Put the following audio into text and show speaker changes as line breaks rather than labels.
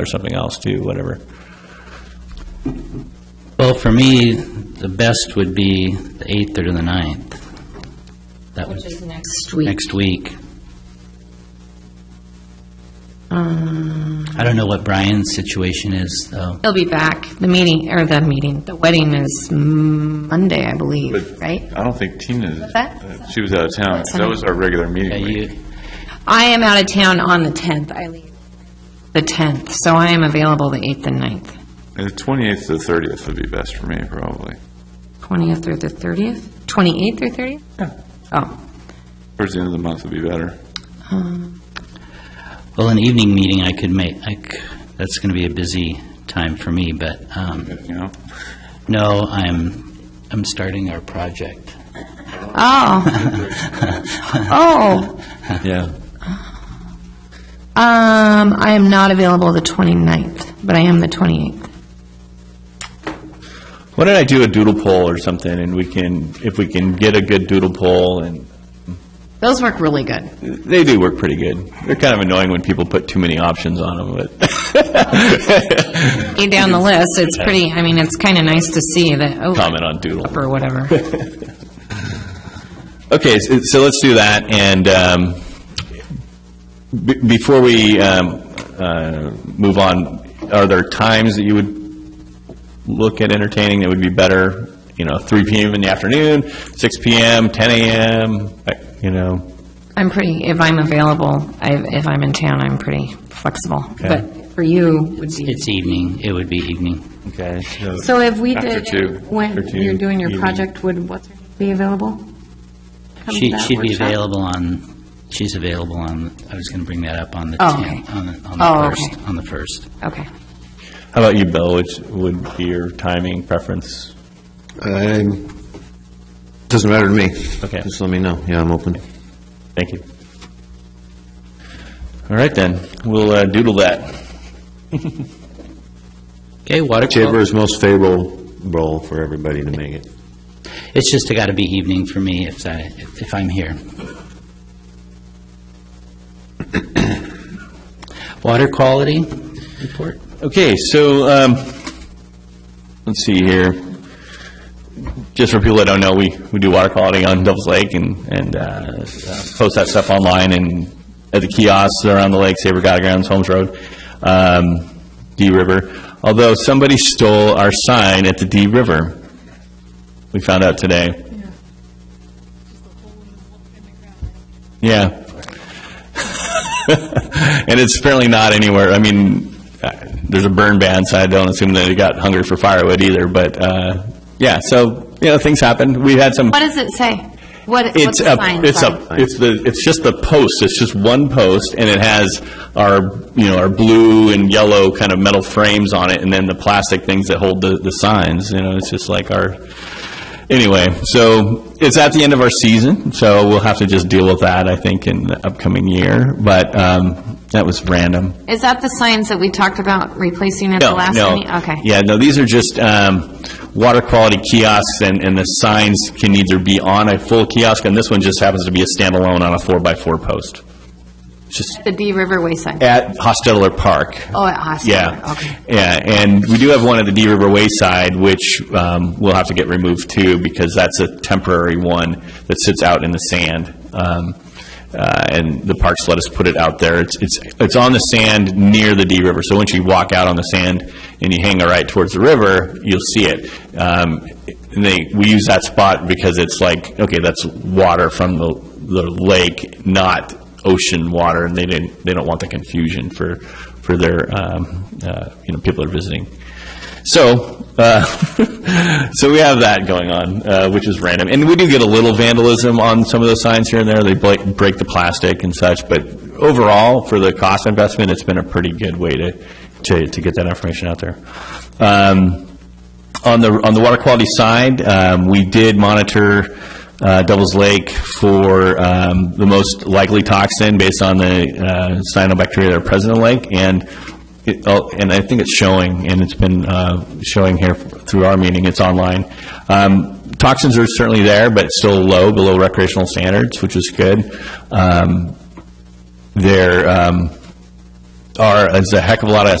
or something else too, whatever.
Well, for me, the best would be the 8th or the 9th. That
Which
was
is next week.
next week. I don't know what Brian's situation is, though.
Uh, He'll be back. The meeting, or the meeting, the wedding is Monday, I believe,
But-
right?
I don't think Tina,
that?
uh, she was out of town.
That's
That was our regular
Yeah,
meeting week.
you,
I am out of town on the 10th. I leave the 10th, so I am available the 8th and 9th.
And The 28th to the 30th would be best for me, probably.
20th or the 30th? 28th or 30th? Oh,
Towards the end of the month would be better.
well, an evening meeting I could make, I c- that's going to be a busy time for me, but, um,
You know?
no, I'm, I'm starting our project.
oh. Oh,
Yeah.
um, I am not available the 29th, but I am the 28th.
Why don't I do a doodle poll or something, and we can, if we can get a good doodle poll, and
Those work really good.
they do work pretty good. They're kind of annoying when people put too many options on them, but
You down the list, it's pretty, I mean, it's kind of nice to see that, oh.
comment on doodle.
Or whatever.
Okay, so so let's do that, and um, be- before we um, uh, move on, are there times that you would look at entertaining that would be better? You know, 3 PM in the afternoon, 6 PM, 10 AM, like, you know?
I'm pretty, if I'm available, I- if I'm in town, I'm pretty flexible.
Okay.
But for you, would be.
It's evening, it would be evening.
Okay.
So if we
After
did,
two.
when
After two,
you're doing your
evening.
project, would, what's her name be available? Come to
She,
that
she'd be
workshop?
available on, she's available on, I was going to bring that up on the
Oh,
10th,
okay.
on the, on
Oh,
the
okay.
1st, on the 1st.
Okay.
How about you, Bill? Which would be your timing preference?
I'm, Um, doesn't matter to me.
Okay.
Just let me know. Yeah, I'm open.
Thank you. All right, then, we'll uh, doodle that.
Okay, water
Whichever is most favorable role for everybody to make it.
It's just got to be evening for me if I, if I'm here. Water quality report?
Okay, so, um, let's see here. Just for people that don't know, we, we do water quality on Devil's Lake and, and uh, uh, post that stuff online and at the kiosks around the lake, Saber Guide Grounds, Holmes Road, um, Dee River. Although somebody stole our sign at the Dee River. We found out today. Yeah. And it's apparently not anywhere, I mean, uh, there's a burn ban, so I don't assume that it got hungry for firewood either, but, uh, yeah, so, you know, things happen. We had some,
What does it say? What, what's
it's
the
a,
sign?
it's
say?
a, it's the, it's just the post, it's just one post, and it has our, you know, our blue and yellow kind of metal frames on it, and then the plastic things that hold the, the signs, you know, it's just like our, anyway, so it's at the end of our season, so we'll have to just deal with that, I think, in the upcoming year, but, um, that was random.
Is that the signs that we talked about replacing at the last
No,
meeting?
no.
Okay.
Yeah, no, these are just um, water quality kiosks, and, and the signs can either be on a full kiosk, and this one just happens to be a standalone on a four-by-four post. It's just
The D River Wayside.
at Hosteller Park.
Oh, at Hostel.
Yeah.
Okay.
Yeah, and we do have one at the Dee River Wayside, which um, will have to get removed too, because that's a temporary one that sits out in the sand. Um, uh, And the parks let us put it out there. It's, it's, it's on the sand near the Dee River, so once you walk out on the sand and you hang a right towards the river, you'll see it. Um, And they, we use that spot because it's like, okay, that's water from the, the lake, not ocean water, and they didn't, they don't want the confusion for, for their, um, uh, you know, people that are visiting. So, uh, so we have that going on, uh, which is random. And we do get a little vandalism on some of those signs here and there. They break, break the plastic and such, but overall, for the cost investment, it's been a pretty good way to, to, to get that information out there. Um, on the, on the water quality side, um, we did monitor uh, Devil's Lake for um, the most likely toxin based on the uh, cyanobacteria that are present in the lake, and it, oh, and I think it's showing, and it's been uh, showing here through our meeting, it's online. Um, Toxins are certainly there, but it's still low, below recreational standards, which is good. Um, There um, are, there's a heck of a lot of